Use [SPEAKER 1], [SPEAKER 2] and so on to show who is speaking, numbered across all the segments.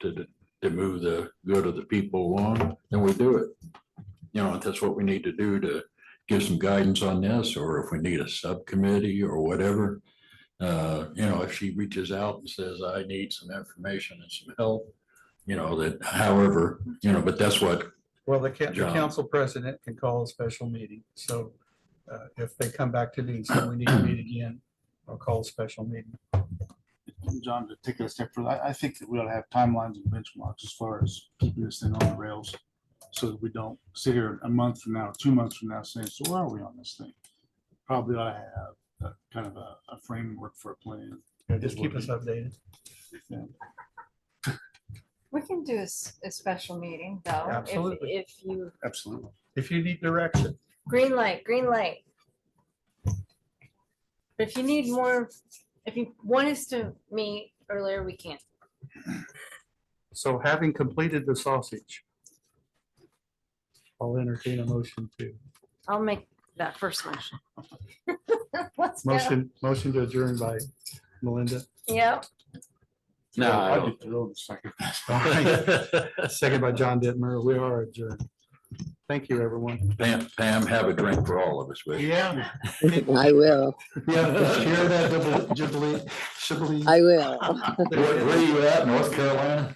[SPEAKER 1] to, to move the good of the people along, then we do it. You know, if that's what we need to do to give some guidance on this, or if we need a subcommittee or whatever. Uh, you know, if she reaches out and says, I need some information and some help, you know, that however, you know, but that's what,
[SPEAKER 2] Well, the ca- the
[SPEAKER 1] John.
[SPEAKER 2] council president can call a special meeting, so uh, if they come back to me and say we need to meet again, I'll call a special meeting.
[SPEAKER 3] John, to take it a step further, I, I think that we'll have timelines and benchmarks as far as keeping this thing on the rails. So that we don't sit here a month from now, two months from now saying, so where are we on this thing? Probably I have a kind of a, a framework for a plan.
[SPEAKER 2] Yeah, Just keep us updated.
[SPEAKER 4] We can do a, s- a special meeting though. if-
[SPEAKER 2] Absolutely.
[SPEAKER 4] If you,
[SPEAKER 3] Absolutely.
[SPEAKER 2] If you need direction,
[SPEAKER 4] green light, green light. But if you need more, if you want us to meet earlier, we can.
[SPEAKER 2] so having completed the sausage, I'll entertain a motion to,
[SPEAKER 4] I'll make that first motion. Let's go.
[SPEAKER 2] motion, motion to adjourn by Melinda.
[SPEAKER 4] Yep,
[SPEAKER 1] no, I
[SPEAKER 3] I'd
[SPEAKER 1] don't.
[SPEAKER 3] be thrilled if I could-
[SPEAKER 2] Second by John Ditmer, we are adjourned. Thank you, everyone.
[SPEAKER 1] Pam, Pam, have a drink for all of us, will you?
[SPEAKER 2] Yeah.
[SPEAKER 5] I will,
[SPEAKER 2] Yeah, share that jubilee, jubilee.
[SPEAKER 5] I will.
[SPEAKER 1] Where where are you at, North Carolina?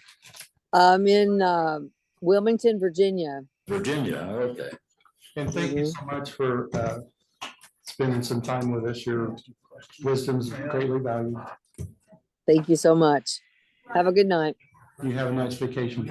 [SPEAKER 5] I'm in um, Wilmington, Virginia.
[SPEAKER 1] Virginia, okay.
[SPEAKER 2] And thank you so much for uh, spending some time with us. Your wisdom's greatly valued.
[SPEAKER 5] Thank you so much. Have a good night.
[SPEAKER 2] You have a nice vacation.